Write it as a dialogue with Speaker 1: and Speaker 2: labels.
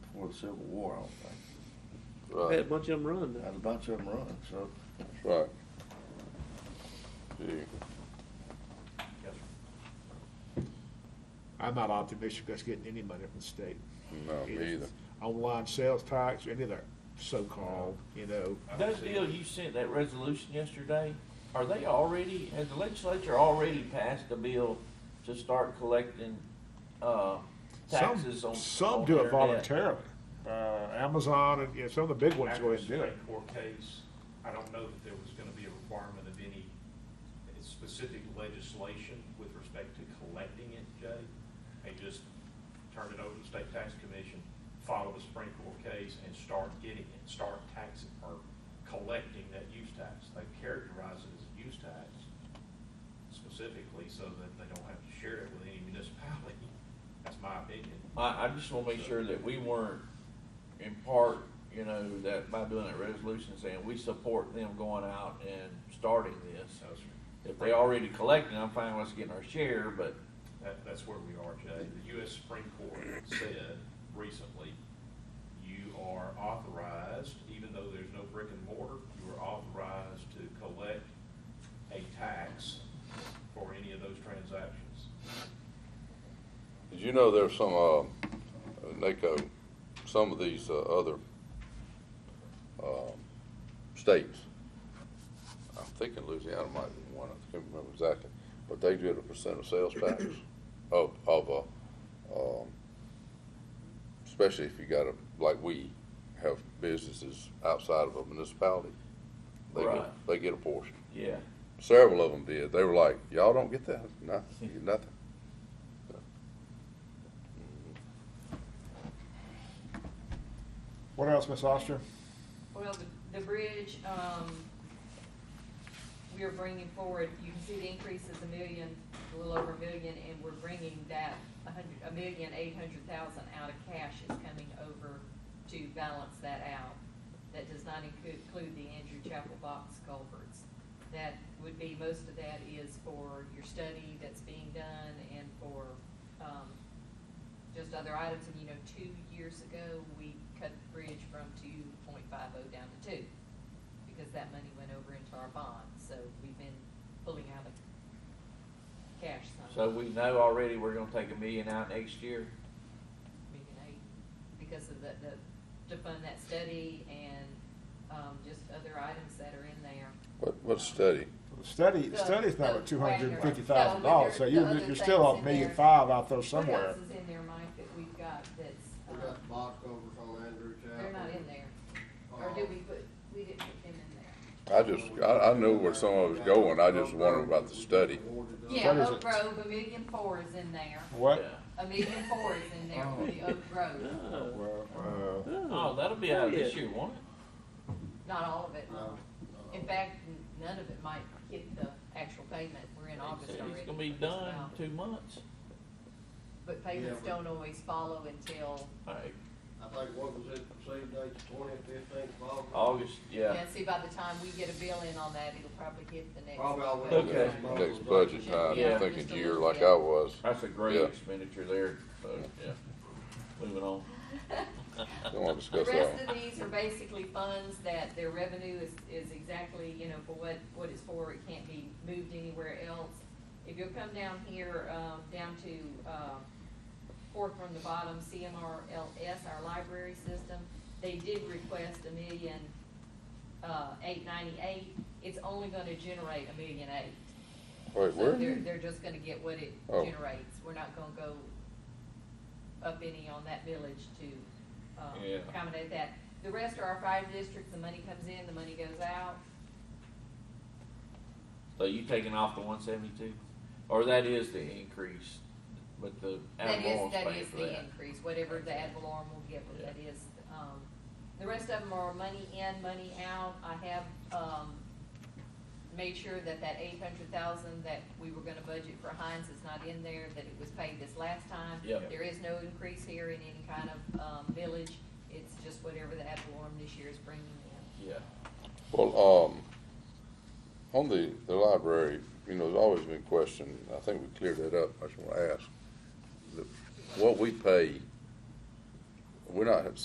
Speaker 1: the Civil War, I don't think.
Speaker 2: Had a
Speaker 3: Right,
Speaker 2: bunch of them run.
Speaker 1: Had a bunch of them run, so.
Speaker 3: right. Yeah.
Speaker 4: I'm not optimistic us getting any money from the state.
Speaker 3: No, me either.
Speaker 4: Online sales tax, any of that so-called, you know.
Speaker 5: Those deals you sent, that resolution yesterday, are they already, has the legislature already passed a bill to start collecting, uh,
Speaker 4: Some,
Speaker 5: taxes on?
Speaker 4: some
Speaker 5: on
Speaker 4: do it
Speaker 5: internet?
Speaker 4: voluntarily. Uh, Amazon and, you know, some of the big ones
Speaker 6: After
Speaker 4: go
Speaker 6: the
Speaker 4: ahead and do it.
Speaker 6: Supreme Court case, I don't know that there was gonna be a requirement of any specific legislation with respect to collecting it, Jay. They just turned it over to the State Tax Commission, follow the Supreme Court case, and start getting it, start taxing or collecting that use tax. They characterize it as a use tax specifically so that they don't have to share it with any municipality. That's my opinion.
Speaker 5: I, I just wanna make sure that we weren't in part, you know, that by doing that resolution saying we support them going out and starting this.
Speaker 6: So,
Speaker 5: If they already collecting, I'm fine with us getting our share, but
Speaker 6: That, that's where we are today. The U.S. Supreme Court said recently, you are authorized, even though there's no brick and mortar, you are authorized to collect a tax for any of those transactions.
Speaker 3: Did you know there's some, uh, NACO, some of these, uh, other, um, states, I'm thinking Louisiana might be one, I can't remember exactly, but they did a percent of sales tax of, of, uh, um, especially if you got a, like we have businesses outside of a municipality. They get,
Speaker 5: Right.
Speaker 3: they get a portion.
Speaker 5: yeah,
Speaker 3: Several of them did. They were like, y'all don't get that, nothing, you get nothing.
Speaker 4: What else, Ms. Oster?
Speaker 7: Well, the, the bridge, um, we are bringing forward, you can see the increase is a million, a little over a million, and we're bringing that a hundred, a million, eight hundred thousand out of cash is coming over to balance that out. That does not include, include the Andrew Chapel box culverts. That would be, most of that is for your study that's being done and for, um, just other items, and you know, two years ago, we cut the bridge from two point five oh down to two, because that money went over into our bond, so we've been pulling out of cash some.
Speaker 5: so we know already we're gonna take a million out next year.
Speaker 7: Million eight, because of the, the, to fund that study and, um, just other items that are in there.
Speaker 3: What, what study?
Speaker 4: The Study, the
Speaker 7: The-
Speaker 4: study's now
Speaker 7: the
Speaker 4: at two hundred and fifty thousand
Speaker 7: wagner. No,
Speaker 4: dollars,
Speaker 7: but
Speaker 4: so
Speaker 7: there's
Speaker 4: you're,
Speaker 7: other
Speaker 4: you're still
Speaker 7: things
Speaker 4: a
Speaker 7: in
Speaker 4: million
Speaker 7: there.
Speaker 4: five out there
Speaker 7: What
Speaker 4: somewhere.
Speaker 7: else is in there, Mike, that we've got that's,
Speaker 8: We
Speaker 7: um,
Speaker 8: got box overs on Andrew Chapel.
Speaker 7: they're not in there, or did we put, we didn't put them in there?
Speaker 3: I just, I, I knew where some of it was going, I just wondered about the study.
Speaker 7: Yeah,
Speaker 4: What is
Speaker 7: Oak
Speaker 4: it?
Speaker 7: Grove, a million four is in there.
Speaker 4: What?
Speaker 5: Yeah.
Speaker 7: A million four is in there for the Oak Grove.
Speaker 2: Oh.
Speaker 4: Well, uh,
Speaker 5: Oh, that'll be out of this year, won't it?
Speaker 7: Not all of it.
Speaker 5: Oh,
Speaker 8: No, no.
Speaker 7: In fact, n- none of it might hit the actual payment. We're in August already.
Speaker 5: It's gonna be
Speaker 7: just
Speaker 5: done
Speaker 7: about.
Speaker 5: in two months.
Speaker 7: But payments
Speaker 8: Yeah, but-
Speaker 7: don't always follow until,
Speaker 5: All right,
Speaker 8: I think what was it, same date, twentieth, fifteenth of August?
Speaker 5: August, yeah.
Speaker 7: yeah, see, by the time we get a bill in on that, it'll probably hit the next.
Speaker 8: Probably I'll wait.
Speaker 7: budget.
Speaker 5: Okay.
Speaker 3: Next budget time, I'm thinking year like I was,
Speaker 5: That's a great
Speaker 3: Yeah.
Speaker 5: expenditure there, so, yeah. Moving on.
Speaker 3: don't wanna
Speaker 7: The
Speaker 3: discuss that one.
Speaker 7: rest of these are basically funds that their revenue is, is exactly, you know, for what, what it's for, it can't be moved anywhere else. If you'll come down here, um, down to, um, fourth from the bottom, CMRLS, our library system, they did request a million, uh, eight ninety-eight, it's only gonna generate a million eight.
Speaker 3: Wait,
Speaker 7: So they're,
Speaker 3: where?
Speaker 7: they're just gonna get what it
Speaker 3: Oh.
Speaker 7: generates, we're not gonna go up any on that village to, um,
Speaker 5: Yeah.
Speaker 7: accommodate that. The rest are our five districts, the money comes in, the money goes out,
Speaker 5: So you taking off the one seventy-two? Or that is the increase, but the
Speaker 7: that
Speaker 5: ad
Speaker 7: is,
Speaker 5: valorem's
Speaker 7: that
Speaker 5: paying
Speaker 7: is
Speaker 5: for
Speaker 7: the
Speaker 5: that?
Speaker 7: increase, whatever the ad valorem will give, but
Speaker 5: Yeah.
Speaker 7: that is, um, the rest of them are money in, money out, I have, um, made sure that that eight hundred thousand that we were gonna budget for Heinz is not in there, that it was paid this last time.
Speaker 5: Yep.
Speaker 7: There is no increase here in any kind of, um, village, it's just whatever the ad valorem this year is bringing in.
Speaker 5: Yeah.
Speaker 3: Well, um, on the, the library, you know, there's always been question, I think we cleared that up, I just wanna ask. the- What we pay, we're not